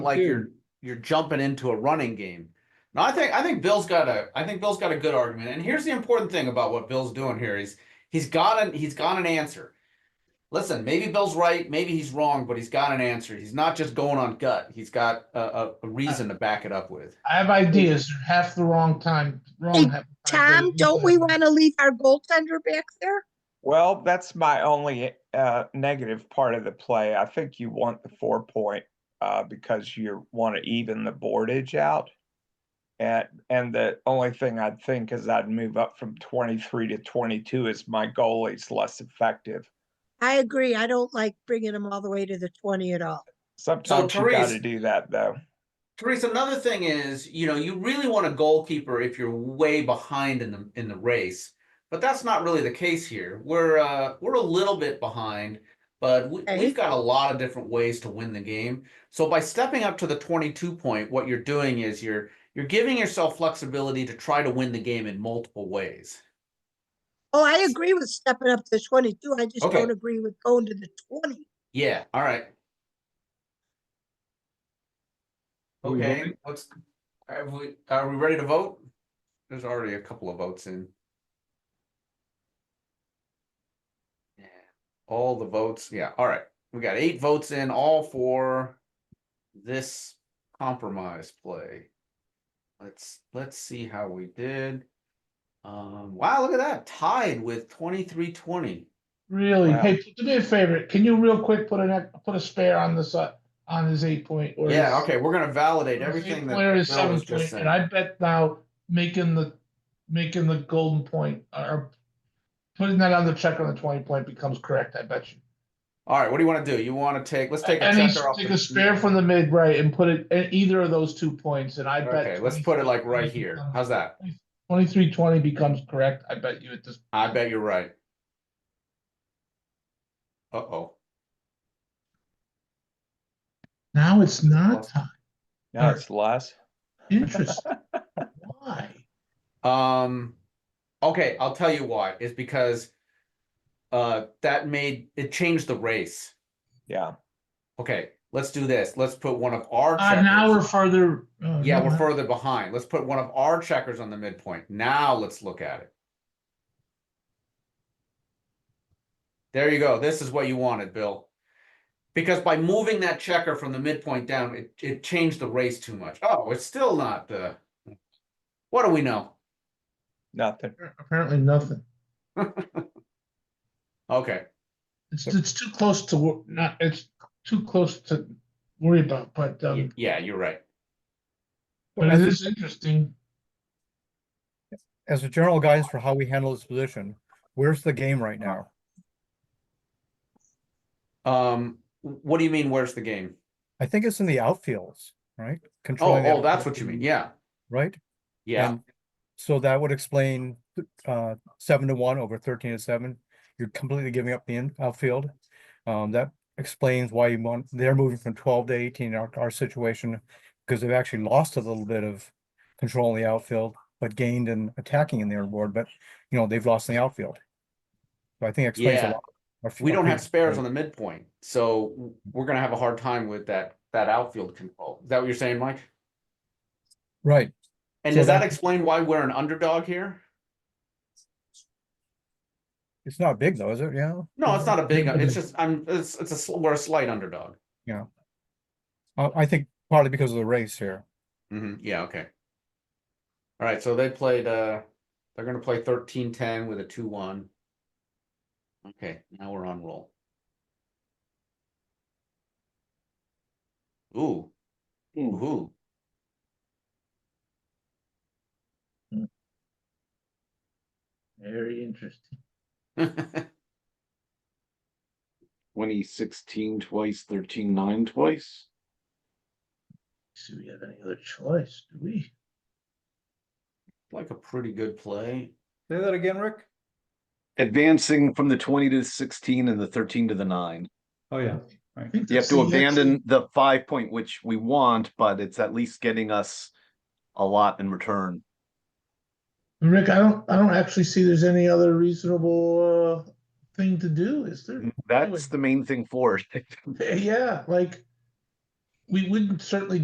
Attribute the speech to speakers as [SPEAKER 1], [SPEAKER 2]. [SPEAKER 1] like
[SPEAKER 2] Dude.
[SPEAKER 1] you're you're jumping into a running game. No, I think I think Bill's got a I think Bill's got a good argument. And here's the important thing about what Bill's doing here is he's got an he's got an answer. Listen, maybe Bill's right, maybe he's wrong, but he's got an answer. He's not just going on gut. He's got a, a, a reason to back it up with.
[SPEAKER 2] I have ideas, they're half the wrong time,
[SPEAKER 3] Hey,
[SPEAKER 2] wrong. half the time.
[SPEAKER 3] Tom, don't we want to leave our goaltender back there?
[SPEAKER 4] Well, that's my only uh, negative part of the play. I think you want the four point uh, because you want to even the boardage out. And, and the only thing I'd think is I'd move up from 23 to 22 is my goalie's less effective.
[SPEAKER 3] I agree. I don't like bringing him all the way to the twenty at all.
[SPEAKER 4] Sometimes you got to
[SPEAKER 1] Therese-
[SPEAKER 4] do that though.
[SPEAKER 1] Therese, another thing is, you know, you really want a goalkeeper if you're way behind in the in the race, but that's not really the case here. We're uh, we're a little bit behind, but we,
[SPEAKER 3] Okay.
[SPEAKER 1] we've got a lot of different ways to win the game. So by stepping up to the 22 point, what you're doing is you're you're giving yourself flexibility to try to win the game in multiple ways.
[SPEAKER 3] Oh, I agree with stepping up to twenty-two. I just
[SPEAKER 1] Okay.
[SPEAKER 3] don't agree with going to the twenty.
[SPEAKER 1] Yeah. All right.
[SPEAKER 2] Are we
[SPEAKER 1] Okay.
[SPEAKER 2] voting?
[SPEAKER 1] Let's. Are we are we ready to vote? There's already a couple of votes in. Yeah. All the votes. Yeah. All right. We got eight votes in, all for this compromise play. Let's let's see how we did. Um. Wow. Look at that. Tied with twenty three twenty.
[SPEAKER 2] Really,
[SPEAKER 1] Wow.
[SPEAKER 2] hey, do me a favor, can you real quick put an, put a spare on this, uh, on his eight point? or
[SPEAKER 1] Yeah,
[SPEAKER 2] his-
[SPEAKER 1] okay, we're gonna validate
[SPEAKER 2] or his
[SPEAKER 1] everything
[SPEAKER 2] eight
[SPEAKER 1] that
[SPEAKER 2] Player is
[SPEAKER 1] Bill
[SPEAKER 2] seven
[SPEAKER 1] was just
[SPEAKER 2] point,
[SPEAKER 1] saying.
[SPEAKER 2] and I bet now making the, making the golden point, uh, or putting that on the check on the twenty point becomes correct, I bet you.
[SPEAKER 1] All right, what do you wanna do? You wanna take, let's take a
[SPEAKER 2] And he's,
[SPEAKER 1] checker off.
[SPEAKER 2] take
[SPEAKER 1] the-
[SPEAKER 2] a spare from the mid, right, and put it, at either of those two points, and I bet.
[SPEAKER 1] Okay, let's put it like right
[SPEAKER 2] 23,
[SPEAKER 1] here. How's that?
[SPEAKER 2] Twenty-three twenty becomes correct, I bet you at this.
[SPEAKER 1] I bet you're right. Uh-oh,
[SPEAKER 2] Now it's not
[SPEAKER 1] Awesome.
[SPEAKER 2] time.
[SPEAKER 4] Now it's less.
[SPEAKER 2] Interesting. Why?
[SPEAKER 1] um, okay, I'll tell you why, it's because uh, that made, it changed the race.
[SPEAKER 4] Yeah.
[SPEAKER 1] Okay, let's do this, let's put one of our.
[SPEAKER 2] Uh, now
[SPEAKER 1] checkers-
[SPEAKER 2] we're further. oh,
[SPEAKER 1] Yeah,
[SPEAKER 2] no,
[SPEAKER 1] we're
[SPEAKER 2] not-
[SPEAKER 1] further behind, let's put one of our checkers on the midpoint, now let's look at it. There you go, this is what you wanted, Bill. Because by moving that checker from the midpoint down, it, it changed the race too much, oh, it's still not the. What do we know?
[SPEAKER 4] Nothing.
[SPEAKER 2] Apparently nothing.
[SPEAKER 1] Okay,
[SPEAKER 2] It's, it's too close to, wor- not, it's too close to worry about, but,
[SPEAKER 1] y-
[SPEAKER 2] um,
[SPEAKER 1] yeah, you're right,
[SPEAKER 2] but it is interesting.
[SPEAKER 5] as a general guidance for how we handle this position, where's the game right now?
[SPEAKER 1] um, what do you mean, where's the game?
[SPEAKER 5] I think it's in the outfields, right?
[SPEAKER 1] Oh,
[SPEAKER 5] Controlling the
[SPEAKER 1] oh, that's
[SPEAKER 5] outfield,
[SPEAKER 1] what you mean, yeah,
[SPEAKER 5] Right?
[SPEAKER 1] yeah,
[SPEAKER 5] And So that would explain, uh, seven to one over thirteen to seven. You're completely giving up the in- outfield. Um, that explains why you want, they're moving from twelve to eighteen in our, our situation, because they've actually lost a little bit of control in the outfield, but gained in attacking in their board, but, you know, they've lost in the outfield. So I think it explains
[SPEAKER 1] Yeah.
[SPEAKER 5] a lot. Our-
[SPEAKER 1] we
[SPEAKER 5] our
[SPEAKER 1] don't have
[SPEAKER 5] previous
[SPEAKER 1] spares
[SPEAKER 5] play.
[SPEAKER 1] on the midpoint, so w- we're gonna have a hard time with that, that outfield control, is that what you're saying, Mike?
[SPEAKER 5] Right.
[SPEAKER 1] And
[SPEAKER 5] So
[SPEAKER 1] does that
[SPEAKER 5] that-
[SPEAKER 1] explain why we're an underdog here?
[SPEAKER 5] It's not big though, is it? Yeah.
[SPEAKER 1] No, it's not a big,
[SPEAKER 5] Mhm.
[SPEAKER 1] it's just, I'm, it's, it's a, sl- we're a slight underdog.
[SPEAKER 5] I, I think partly because of the race here.
[SPEAKER 1] hmm yeah, okay. All right, so they played, uh, they're gonna play thirteen ten with a two one. Okay, now we're on roll. Ooh, ooh,
[SPEAKER 2] Very interesting.
[SPEAKER 6] twenty sixteen twice, thirteen nine twice.
[SPEAKER 2] Do we have any other choice? Do we?
[SPEAKER 1] like a pretty good play.
[SPEAKER 5] Say that again, Rick?
[SPEAKER 6] Advancing from the twenty to the sixteen and the thirteen to the nine.
[SPEAKER 5] Oh, yeah.
[SPEAKER 2] I think
[SPEAKER 6] You have
[SPEAKER 2] that's
[SPEAKER 6] to
[SPEAKER 2] the-
[SPEAKER 6] abandon the five point, which we want, but it's at least getting us a lot in return.
[SPEAKER 2] Rick, I don't, I don't actually see there's any other reasonable, uh, thing to do, is there?
[SPEAKER 6] That's the main thing for it.
[SPEAKER 2] Yeah, like, we, we can certainly